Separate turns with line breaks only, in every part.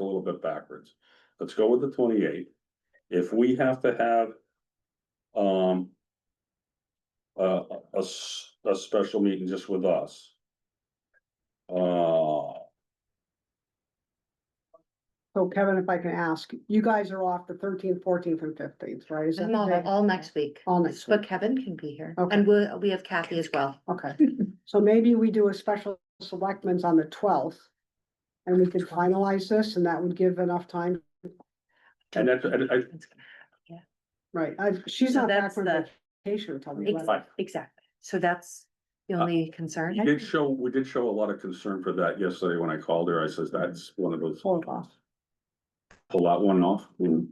a little bit backwards. Let's go with the twenty-eight. If we have to have. Um. A, a s- a special meeting just with us. Uh,
So Kevin, if I can ask, you guys are off the thirteenth, fourteenth and fifteenth, right? Is that
No,
correct?
all next week.
All next
But
week.
Kevin can be here
Okay.
and we, we have Kathy as well.
Okay, so maybe we do a special selectmen's on the twelfth. And we could finalize this and that would give enough time,
and that's, and I,
right? I've, she's
So
not back
that's
from
the-
vacation until the
Ex-
eleventh.
Exactly. So that's the
Uh,
only concern.
we did show, we did show a lot of concern for that yesterday when I called her. I says, that's one of those,
Hold off.
pull that one off. and-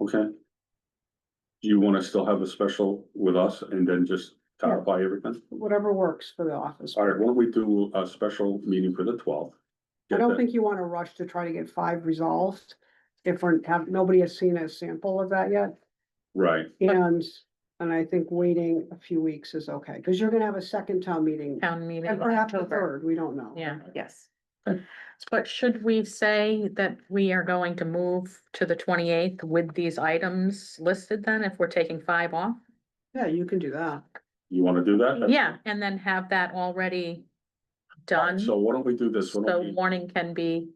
Okay. Do you wanna still have a special with us and then just clarify everything?
whatever works for the office.
All right, why don't we do a special meeting for the twelfth?
I don't think you wanna rush to try to get five resolved. If we're, have, nobody has seen a sample of that yet.
Right,
And, and I think waiting a few weeks is okay, because you're gonna have a second town meeting.
town meeting
And
in
perhaps a
October.
third, we don't know.
Yeah,
Yes.
but should we say that we are going to move to the twenty-eighth with these items listed then, if we're taking five off?
Yeah, you can do that.
you wanna do that? That's-
Yeah, and then have that already
All right,
done,
So
so
why don't we do this? Why don't we-
warning can be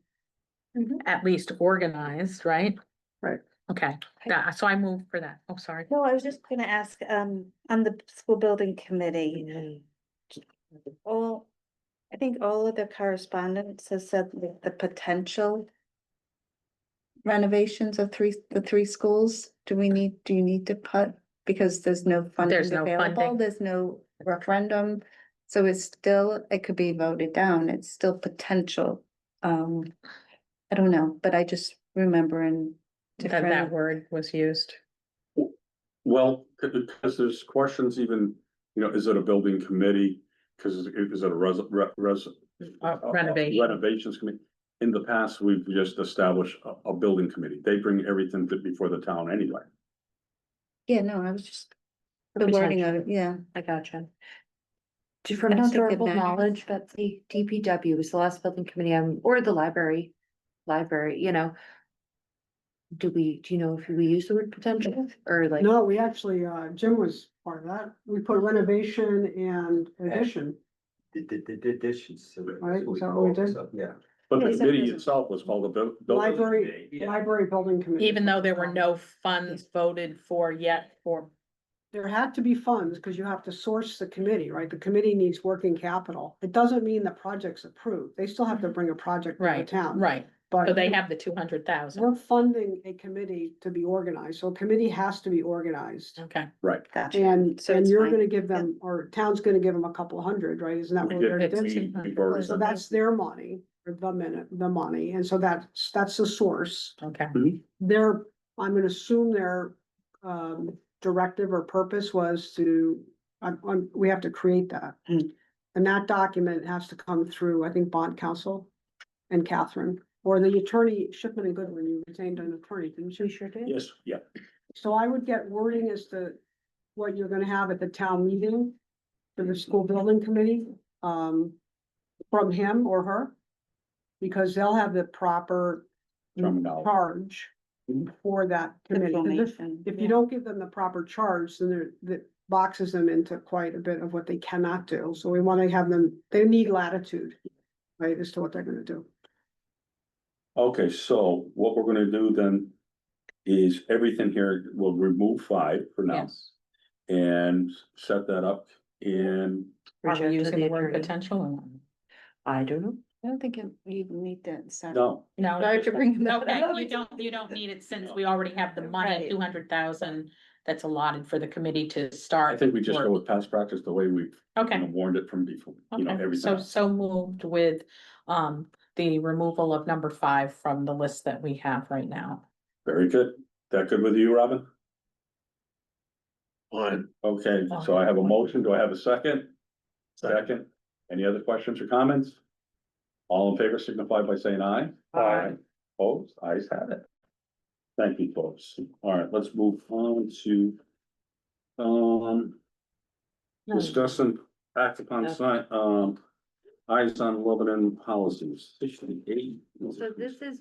Mhm.
at least organized, right?
Right.
Okay, that- so I move for that, oh, sorry.
No, I was just gonna ask, um, on the school building committee,
Mm-hmm.
all, I think all of the correspondence has said that the potential renovations of three, the three schools, do we need, do you need to put, because there's no funding
There's no funding.
available, there's no referendum, so it's still, it could be voted down, it's still potential. Um, I don't know, but I just remember in
That that
different,
word was used.
Well, because there's questions even, you know, is it a building committee? Cause is is it a res- re- res-
Uh, renovation.
Renovations committee. In the past, we've just established a, a building committee. They bring everything to- before the town anyway.
yeah, no, I was just,
The
the wording
potential.
of it, yeah.
I gotcha. Just from
I don't think it
historical
matters.
knowledge, but the DPW is the last building committee, um, or the library, library, you know. Do we, do you know if we use the word potential or like?
No, we actually, uh, Jim was part of that. We put renovation and addition.
Did, did, did, did dishes. so that's
Right,
what we
is that what we
call it,
did?
so, Yeah.
But
Yeah,
the
it's a
committee
business.
itself was called a bu- building. committee.
Library,
Yeah.
library building committee. Um,
Even though there were no funds voted for yet for,
There had to be funds because you have to source the committee, right? The committee needs working capital. It doesn't mean the project's approved. They still have to bring a project to the
Mm-hmm. Right,
town.
right, so
But
they have the two hundred thousand,
we're funding a committee to be organized, so a committee has to be organized.
okay.
Gotcha.
And,
So
and
it's
you're
fine.
gonna give them, or town's gonna give them a couple hundred, right? Isn't that
We
what
did-
they're
It's-
doing?
we- we've already
So
done
that's their money, or the minute, the money, and so that's, that's the source.
Okay,
Their, I'm gonna assume their um directive or purpose was to, I'm, I'm, we have to create that.
Mm.
And that document has to come through, I think, bond counsel and Catherine, or the attorney, Shipman and Goodwin, you retained an attorney, didn't you? sure
that.
did.
Yes, yeah.
So I would get wording as to what you're gonna have at the town meeting for the school building committee, um, from him or her. Because they'll have the proper
Terminology.
charge
Mhm.
for that committee. 'Cause if-
Information,
If
yeah.
you don't give them the proper charge, then they're, that boxes them into quite a bit of what they cannot do. So we wanna have them, they need latitude, right, as to what they're gonna do.
Okay, so what we're gonna do then is everything here, we'll remove five for now
yes.
and set that up in
Are we
Project to
using the word
attorney.
potential or? not?
I don't know.
I don't think you you need that. separate.
No,
No.
Sorry to bring that
Okay,
up.
you don't, you don't need it since we already have the money,
Right.
two hundred thousand, that's allotted for the committee to
I
start.
think we just go
work.
with past practice, the way we've you know,
Okay,
warned it from before, you know,
okay,
everything.
so,
else.
so moved with, um, the removal of number five from the list that we have right now.
Very good. That good with you, Robin? Fine. Okay, so I have a motion. Do I have a second? Second. Any other questions or comments? All in favor signify by saying aye.
Aye.
Opposed? Ayes have it. Thank you, folks. All right, let's move on to um, discuss and act upon sign, um, eyes on Lebanon policies, sixty-eight.
So this is